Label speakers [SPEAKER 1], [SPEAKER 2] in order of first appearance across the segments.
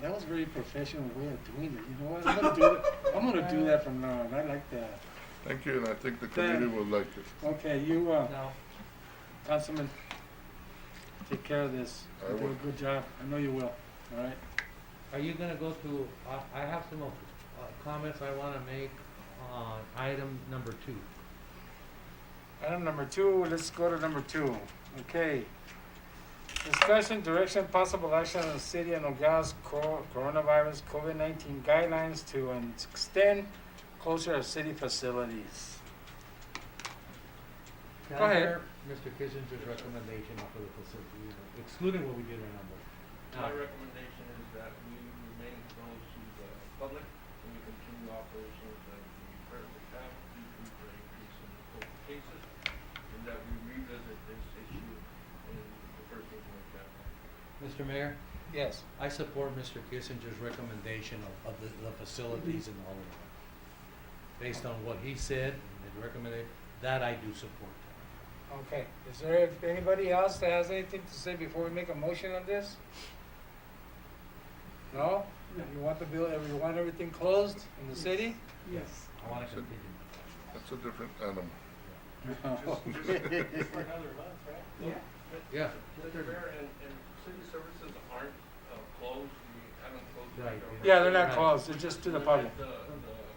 [SPEAKER 1] That was a very professional way of doing it. You know what? I'm gonna do it. I'm gonna do that from now on. I like that.
[SPEAKER 2] Thank you, and I think the
[SPEAKER 1] Thank-
[SPEAKER 2] committee will like it.
[SPEAKER 1] Okay, you, uh,
[SPEAKER 3] No.
[SPEAKER 1] Councilman, take care of this.
[SPEAKER 2] I
[SPEAKER 1] You do
[SPEAKER 2] will.
[SPEAKER 1] a good job. I know you will. All right.
[SPEAKER 3] Are you gonna go to, uh, I have some uh, comments I wanna make on item number two.
[SPEAKER 1] Item number two, let's go to number two. Okay. Discussion, direction, possible action on the city and Nogales co- coronavirus COVID-19 guidelines to um, extend closure of city facilities.
[SPEAKER 3] Can
[SPEAKER 1] Go
[SPEAKER 3] I
[SPEAKER 1] ahead.
[SPEAKER 3] hear Mr. Kissinger's recommendation for the facility, unit, excluding what we did in number.
[SPEAKER 4] My recommendation is that we remain closed to the public and we continue operations as we currently have due to the increase in the COVID cases, and that we revisit this issue in the first week of January.
[SPEAKER 3] Mr. Mayor,
[SPEAKER 1] Yes.
[SPEAKER 3] I support Mr. Kissinger's recommendation of, of the, the facilities in all of that. Based on what he said and recommended, that I do support.
[SPEAKER 1] Okay. Is there anybody else that has anything to say before we make a motion on this? No? You want the bill, you want everything closed in the city?
[SPEAKER 5] Yes.
[SPEAKER 3] I wanna continue.
[SPEAKER 2] That's a different animal.
[SPEAKER 4] Just for another month, right?
[SPEAKER 5] Yeah.
[SPEAKER 3] Yeah.
[SPEAKER 4] Mr. Mayor, and, and city services aren't, uh, closed, we haven't closed. the
[SPEAKER 3] Right.
[SPEAKER 4] government.
[SPEAKER 1] Yeah, they're not
[SPEAKER 3] Right.
[SPEAKER 1] closed. They're just to the public.
[SPEAKER 4] The, the, the-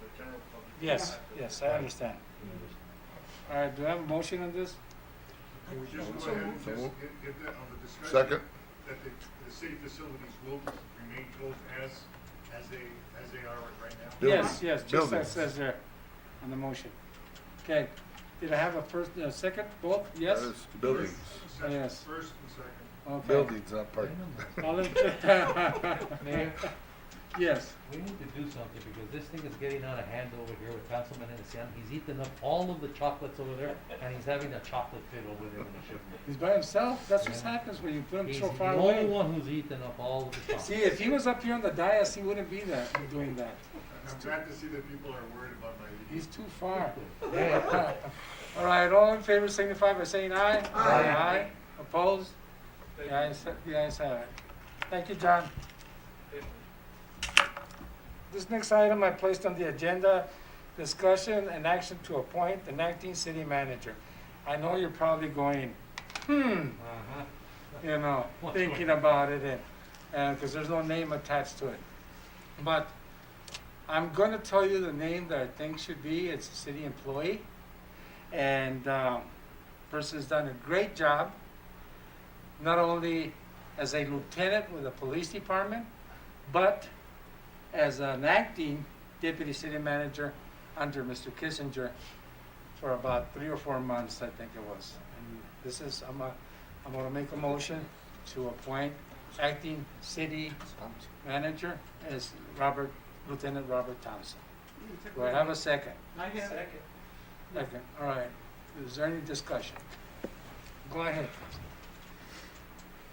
[SPEAKER 4] the general public.
[SPEAKER 1] Yes,
[SPEAKER 4] has to-
[SPEAKER 1] yes, I understand. All right, do I have a motion on this?
[SPEAKER 6] Can we just
[SPEAKER 2] So
[SPEAKER 6] go ahead and
[SPEAKER 2] moved.
[SPEAKER 6] just get- get that on the discussion?
[SPEAKER 2] Second,
[SPEAKER 6] That the, the city facilities will remain closed as, as they, as they are right now?
[SPEAKER 1] Yes, yes, just as
[SPEAKER 2] Buildings.
[SPEAKER 1] says there on the motion. Okay, did I have a first, a second, both,
[SPEAKER 2] that
[SPEAKER 1] yes?
[SPEAKER 2] is buildings,
[SPEAKER 6] First-
[SPEAKER 1] Yes.
[SPEAKER 6] First and second.
[SPEAKER 1] Okay.
[SPEAKER 2] buildings, not parking.
[SPEAKER 1] All in fa-
[SPEAKER 3] Mayor,
[SPEAKER 1] Yes,
[SPEAKER 3] we need to do something because this thing is getting out of hand over here with Councilman Innocent. He's eaten up all of the chocolates over there and he's having a chocolate fit over there in the shipment.
[SPEAKER 1] he's by himself, that's what happens when you put him
[SPEAKER 3] He's
[SPEAKER 1] so
[SPEAKER 3] the
[SPEAKER 1] far
[SPEAKER 3] only
[SPEAKER 1] away.
[SPEAKER 3] one who's eaten up all of the chocolates.
[SPEAKER 1] See, if he was up here on the dais, he wouldn't be there doing that.
[SPEAKER 6] And I'm glad to see that people are worried about my eating.
[SPEAKER 1] He's too far.
[SPEAKER 3] Yeah.
[SPEAKER 1] All right, all in favor signify by saying aye. Aye. Opposed?
[SPEAKER 4] Thank
[SPEAKER 1] The
[SPEAKER 4] you.
[SPEAKER 1] ayes, the ayes have it. Thank you, John.
[SPEAKER 4] Thank you.
[SPEAKER 1] This next item I placed on the agenda, discussion and action to appoint the acting city manager. I know you're probably going, hmm,
[SPEAKER 3] Uh-huh.
[SPEAKER 1] you know,
[SPEAKER 3] What's going
[SPEAKER 1] thinking about it and, and, uh, cause there's no name attached to it. But I'm gonna tell you the name that I think should be, it's a city employee. And, um, person's done a great job, not only as a lieutenant with the police department, but as an acting deputy city manager under Mr. Kissinger for about three or four months, I think it was. And this is, I'm, uh, I'm gonna make a motion to appoint acting city manager as Robert, Lieutenant Robert Thompson. Do I have a second?
[SPEAKER 5] I have,
[SPEAKER 1] Second, all right. Is there any discussion? Go ahead.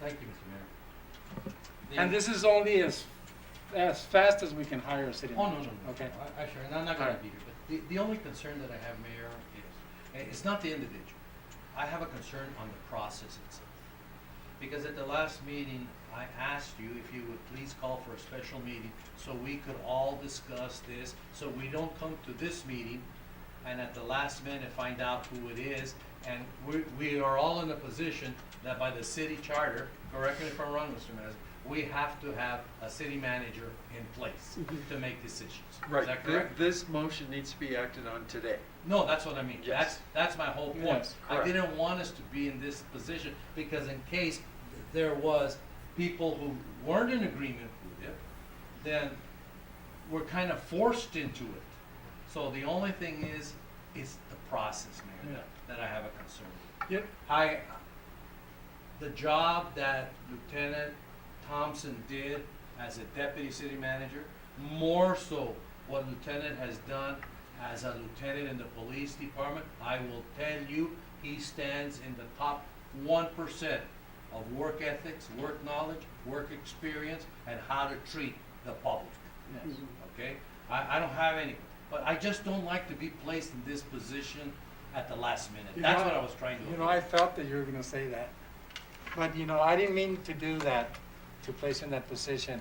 [SPEAKER 3] Thank you, Mr. Mayor.
[SPEAKER 1] And this is only as, as fast as we can hire a city
[SPEAKER 3] Oh, no, no,
[SPEAKER 1] manager.
[SPEAKER 3] no.
[SPEAKER 1] Okay,
[SPEAKER 3] I, I sure, and I'm not gonna
[SPEAKER 1] Alright.
[SPEAKER 3] be here, but the, the only concern that I have, Mayor, is, eh, it's not the individual. I have a concern on the process itself. Because at the last meeting, I asked you if you would please call for a special meeting so we could all discuss this, so we don't come to this meeting and at the last minute find out who it is. And we, we are all in a position that by the city charter, correct me if I'm wrong, Mr. Manager, we have to have a city manager in place to make decisions. Is that correct?
[SPEAKER 7] Right, Thi- this motion needs to be acted on today.
[SPEAKER 3] No, that's what I mean. That's,
[SPEAKER 7] Yes.
[SPEAKER 3] that's my whole point.
[SPEAKER 1] Yes,
[SPEAKER 3] I
[SPEAKER 7] correct.
[SPEAKER 3] didn't want us to be in this position because in case there was people who weren't in agreement with it, then we're kind of forced into it. So the only thing is, is the process, Mayor, that, that I have a concern with.
[SPEAKER 1] Yep.
[SPEAKER 3] I, the job that Lieutenant Thompson did as a deputy city manager, more so what Lieutenant has done as a lieutenant in the police department, I will tell you, he stands in the top one percent of work ethics, work knowledge, work experience, and how to treat the public
[SPEAKER 1] yes.
[SPEAKER 3] okay? I, I don't have any, but I just don't like to be placed in this position at the last minute.
[SPEAKER 1] You
[SPEAKER 3] That's
[SPEAKER 1] know,
[SPEAKER 3] what I was trying to.
[SPEAKER 1] You know, I felt that you were gonna say that, but you know, I didn't mean to do that. to place in that position